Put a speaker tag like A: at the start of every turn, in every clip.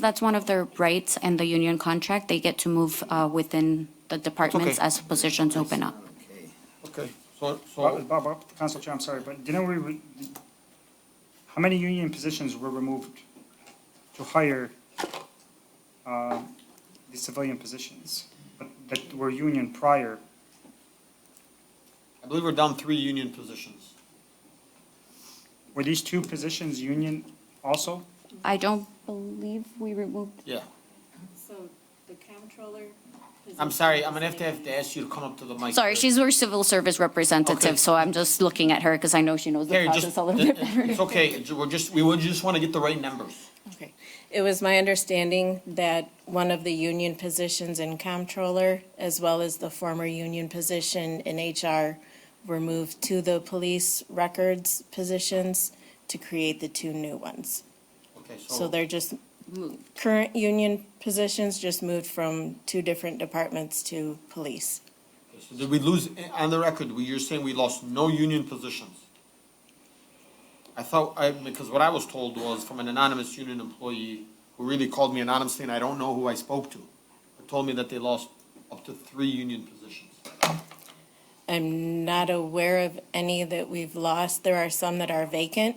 A: That's one of their rights and the union contract. They get to move uh, within the departments as positions open up.
B: Okay, so, so,
C: Bob, Bob, Bob, Council Chair, I'm sorry, but didn't we, re- how many union positions were removed to hire uh, the civilian positions but that were union prior?
B: I believe we're down three union positions.
C: Were these two positions union also?
A: I don't believe we removed,
B: Yeah,
D: So the comptroller.
B: I'm sorry, I'm gonna have to have to ask you to come up to the mic.
A: sorry,
B: here.
A: she's our civil service
B: Okay.
A: representative, so I'm just looking at her because I know she knows the
B: Carrie, just, uh,
A: process a little bit better.
B: it's okay, we're just, we would just wanna get the right numbers.
D: Okay. It was my understanding that one of the union positions in comptroller, as well as the former union position in HR, were moved to the police records positions to create the two new ones.
B: Okay,
D: So
B: so,
D: they're just, current union positions just moved from two different departments to police.
B: so did we lose, on the record, we, you're saying we lost no union positions? I thought, I, because what I was told was from an anonymous union employee who really called me anonymously and I don't know who I spoke to, who told me that they lost up to three union positions.
D: I'm not aware of any that we've lost. There are some that are vacant.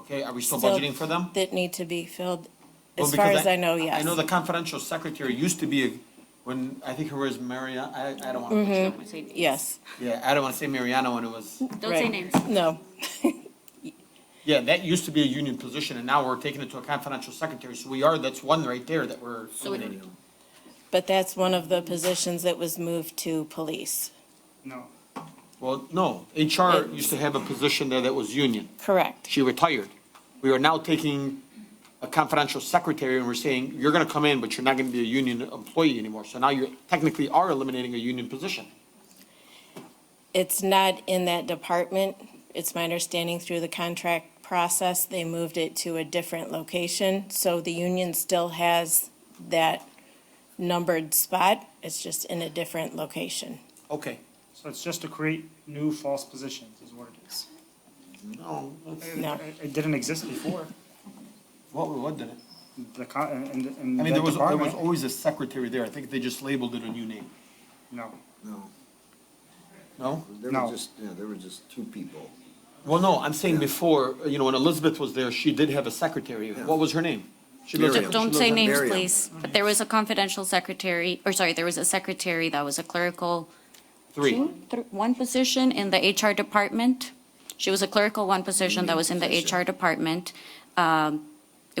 B: Okay, are we still
D: still
B: budgeting for them?
D: That need to be filled,
B: Well,
D: as far
B: because
D: as I know,
B: I
D: yes.
B: know the confidential secretary used to be, a- when, I think her was Maria, I, I don't wanna butcher
D: Mm-hmm.
B: that.
D: Yes,
B: Yeah, I don't wanna say Mariano when it was,
A: Don't
D: say
A: say
D: Right.
A: names.
D: no,
B: yeah, that used to be a union position and now we're taking it to a confidential secretary, so we are, that's one right there that we're
A: So it-
B: eliminating.
D: but that's one of the positions that was moved to police.
C: No.
B: Well, no, HR used to have a position there that was union,
D: Correct.
B: she retired. We are now taking a confidential secretary and we're saying, you're gonna come in, but you're not gonna be a union employee anymore, so now you technically are eliminating a union position.
D: It's not in that department. It's my understanding through the contract process, they moved it to a different location. So the union still has that numbered spot. It's just in a different location.
B: Okay.
C: So it's just to create new false positions is what it is.
B: No, that's-
D: No.
C: It- It didn't exist before.
B: what, what did it?
C: The, co- in, in- in
B: I mean,
C: that
B: there was, there was
C: department,
B: always a secretary there. I think they just labeled it a new name.
C: no.
E: No,
B: No?
E: there
C: No.
E: were just, yeah, there were just two people.
B: Well, no, I'm saying before, you know, when Elizabeth was there, she did have a secretary. What was her name? She lives-
E: Miriam.
A: Don't
E: She
A: say
E: lives in
A: names,
E: Miriam.
A: please. But there was a confidential secretary, or sorry, there was a secretary that was a clerical
B: Three.
A: two, thr- one position in the HR department. She was a clerical one position that was in the HR department. Um,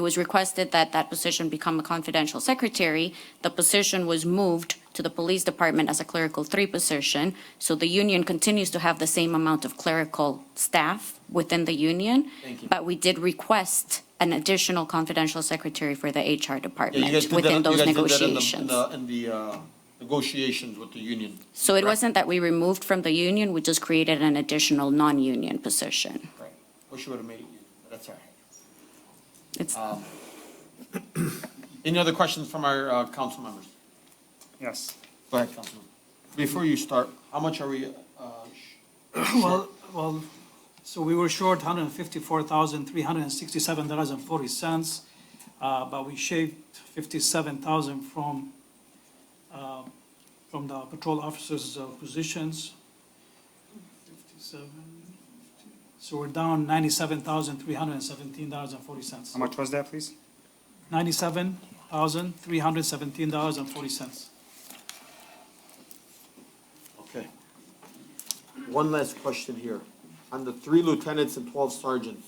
A: It was requested that that position become a confidential secretary. The position was moved to the police department as a clerical three position. So the union continues to have the same amount of clerical staff within the union.
B: Thank you.
A: But we did request an additional confidential secretary for the HR
B: Yeah, you
A: department
B: guys did that-
A: within
B: you
A: those
B: guys did that in the-
A: negotiations.
B: In the, in the, uh, negotiations with the union.
A: So it
B: Correct.
A: wasn't that we removed from the union, we just created an additional non-union position.
B: Right. Wish you would have made it, union, but that's all right.
A: It's,
B: Any other questions from our, uh, council members?
C: Yes.
B: Go ahead, Councilman. Before you start, how much are we, uh, sh-
F: Well, well, so we were short hundred and fifty-four thousand, three hundred and sixty-seven dollars and forty cents, uh, but we shaved fifty-seven thousand from, uh, from the patrol officers' uh, positions. Fifty-seven, so we're down ninety-seven thousand, three hundred and seventeen dollars and forty cents.
C: How much was that, please?
F: Ninety-seven thousand, three hundred and seventeen dollars and forty cents.
B: Okay. One last question here. On the three lieutenants and twelve sergeants,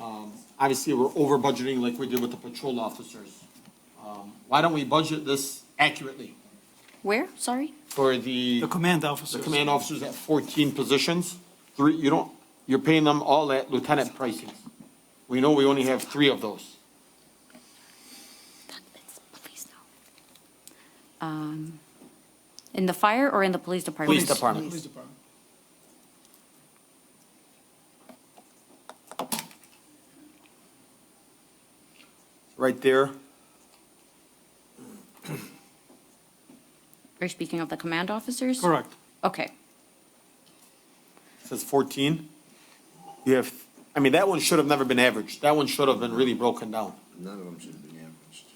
B: um, obviously, we're over budgeting like we did with the patrol officers. Um, Why don't we budget this accurately
A: where, sorry?
B: for the,
F: The command
B: the
F: officers.
B: command officers at fourteen positions? Three, you don't, you're paying them all at lieutenant pricing. We know we only have three of those.
A: Please no. Um, In the fire or in the police department?
B: Police department.
F: Police department.
B: Right there,
A: We're speaking of the command officers?
F: Correct.
A: Okay,
B: it says fourteen. You have, I mean, that one should have never been averaged. That one should have been really broken down.
E: none of them should be averaged.